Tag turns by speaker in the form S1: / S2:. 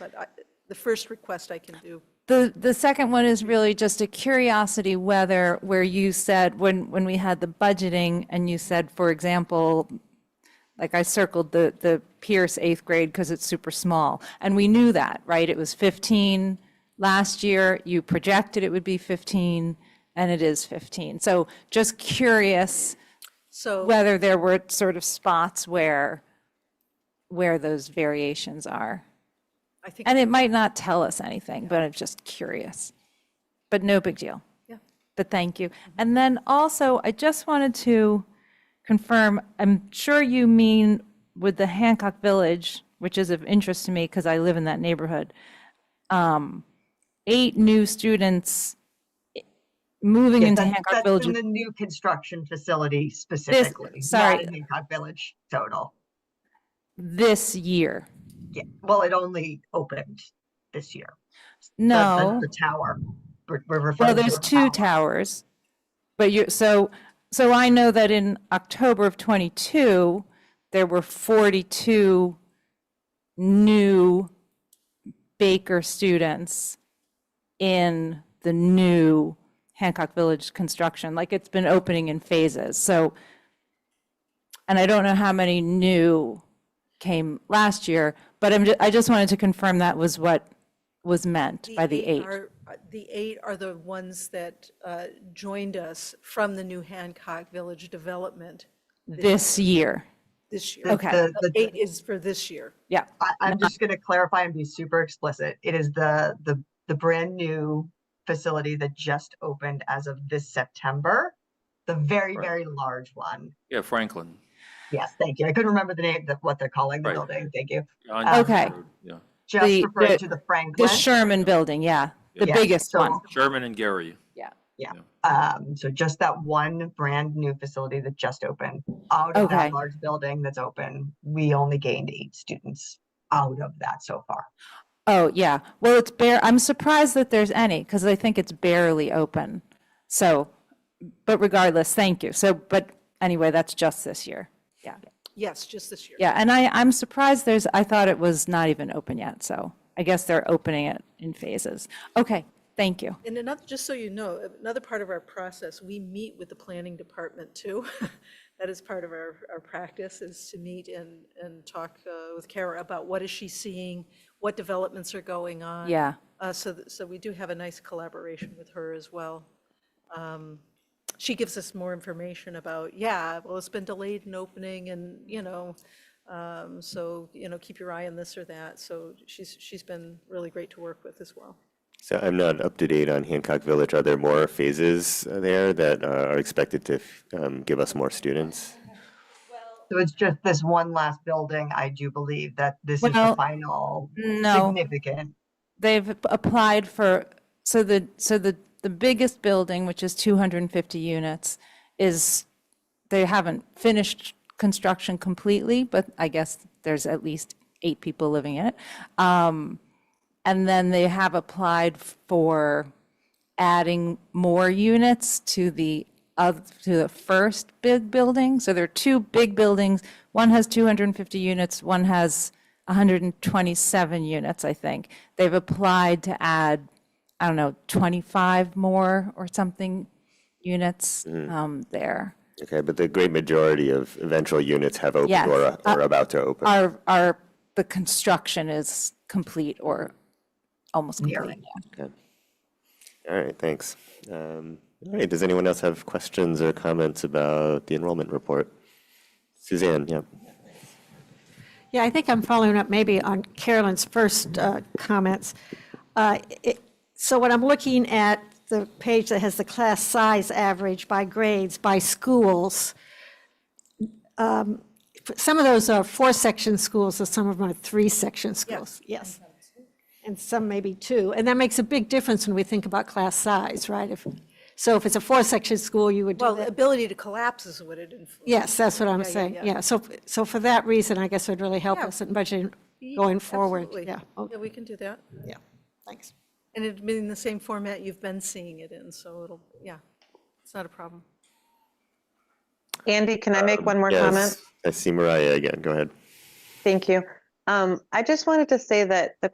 S1: but I- the first request I can do.
S2: The, the second one is really just a curiosity whether, where you said, when, when we had the budgeting, and you said, for example, like I circled the, the Pierce eighth grade because it's super small, and we knew that, right? It was 15 last year, you projected it would be 15, and it is 15. So just curious
S1: So.
S2: whether there were sort of spots where, where those variations are.
S1: I think,
S2: And it might not tell us anything, but I'm just curious. But no big deal.
S1: yeah.
S2: But thank you. And then also, I just wanted to confirm, I'm sure you mean with the Hancock Village, which is of interest to me because I live in that neighborhood, um, eight new students i- moving into
S3: That's-
S2: Hancock
S3: that's
S2: Village.
S3: in the new construction facility specifically. not
S2: sorry.
S3: in Hancock Village total.
S2: This year.
S3: Yeah, well, it only opened this year. The- the-
S2: No.
S3: The tower. We're we're
S2: Well,
S3: referring to
S2: there's
S3: a
S2: two
S3: tower.
S2: towers, but you, so, so I know that in October of '22, there were 42 new Baker students in the new Hancock Village construction, like it's been opening in phases, so, and I don't know how many new came last year, but I'm, ju- I just wanted to confirm that was what was meant by the eight.
S1: are- uh, The eight are the ones that uh, joined us from the new Hancock Village development
S2: this year.
S1: this year.
S3: The-
S2: okay. Uh-huh.
S3: the-
S1: The
S3: the-
S1: Eight is for this year.
S2: Yeah.
S3: I, I'm just going to clarify and be super explicit. It is the, the, the brand new facility that just opened as of this September. The very,
S4: Right.
S3: very large one.
S4: Yeah, Franklin.
S3: Yes, thank you. I couldn't remember the name, the- what they're calling the
S4: Right.
S3: building. Thank you.
S4: on Yonkers
S2: Okay.
S4: Road, Yeah,
S3: Just
S2: The-
S3: referring
S2: the-
S3: to the Franklin.
S2: The Sherman Building, yeah, the
S3: Yeah,
S2: biggest
S3: so-
S2: one.
S4: Sherman and Gary.
S3: Um, so just that one brand new facility that just opened out of
S2: Okay.
S3: that large building that's open, we only gained eight students out of that so far.
S2: Oh, yeah. Well, it's bare, I'm surprised that there's any because I think it's barely open. So, but regardless, thank you. So, but anyway, that's just this year. Yeah.
S1: Yes, just this year.
S2: Yeah. And I, I'm surprised there's, I thought it was not even open yet. So I guess they're opening it in phases. Okay. Thank you.
S1: And another, just so you know, another part of our process, we meet with the planning department too. That is part of our, our practice is to meet and, and talk uh, with Kara about what is she seeing, what developments are going on.
S2: Yeah.
S1: Uh, So, th- so we do have a nice collaboration with her as well. Um, She gives us more information about, yeah, well, it's been delayed in opening and, you know, um, so, you know, keep your eye on this or that. So she's, she's been really great to work with as well.
S5: So I'm not up to date on Hancock Village. Are there more phases uh, there that uh, are expected to f- um, give us more students?
S3: So it's just this one last building. I do believe that this is
S2: Well,
S3: the final
S2: no.
S3: significant.
S2: They've applied for, so the, so the, the biggest building, which is 250 units, is, they haven't finished construction completely, but I guess there's at least eight people living in it. Um, And then they have applied for adding more units to the, of, to the first big building. So there are two big buildings. One has 250 units, one has 127 units, I think. They've applied to add, I don't know, 25 more or something units um, there.
S5: Okay, but the great majority of eventual units have opened
S2: Yes,
S5: or uh, are- are about to open.
S2: Our, our, the construction is complete or almost complete. yeah.
S5: Okay. All right, thanks. Um, all right, does anyone else have questions or comments about the enrollment report? Suzanne, yeah.
S6: Yeah, I think I'm following up maybe on Carolyn's first uh, comments. Uh, it- So when I'm looking at the page that has the class size average by grades, by schools, um, some of those are four-section schools, and some of them are three-section schools. Yes. And some maybe two. And that makes a big difference when we think about class size, right? If- So if it's a four-section school, you would do
S1: Well,
S6: that.
S1: the ability to collapse is what it influences.
S6: Yes, that's what I'm
S1: yeah,
S6: saying,
S1: yeah.
S6: yeah. So, so for that reason, I guess it would really help
S1: Yeah.
S6: us in budgeting going forward,
S1: Absolutely.
S6: yeah. Oh,
S1: Yeah, we can do that.
S6: Yeah, thanks.
S1: And it'd be in the same format you've been seeing it in, so it'll, yeah, it's not a problem.
S7: Andy, can I make one more comment?
S5: Yes, I see Mariah again. Go ahead.
S7: Thank you. Um, I just wanted to say that the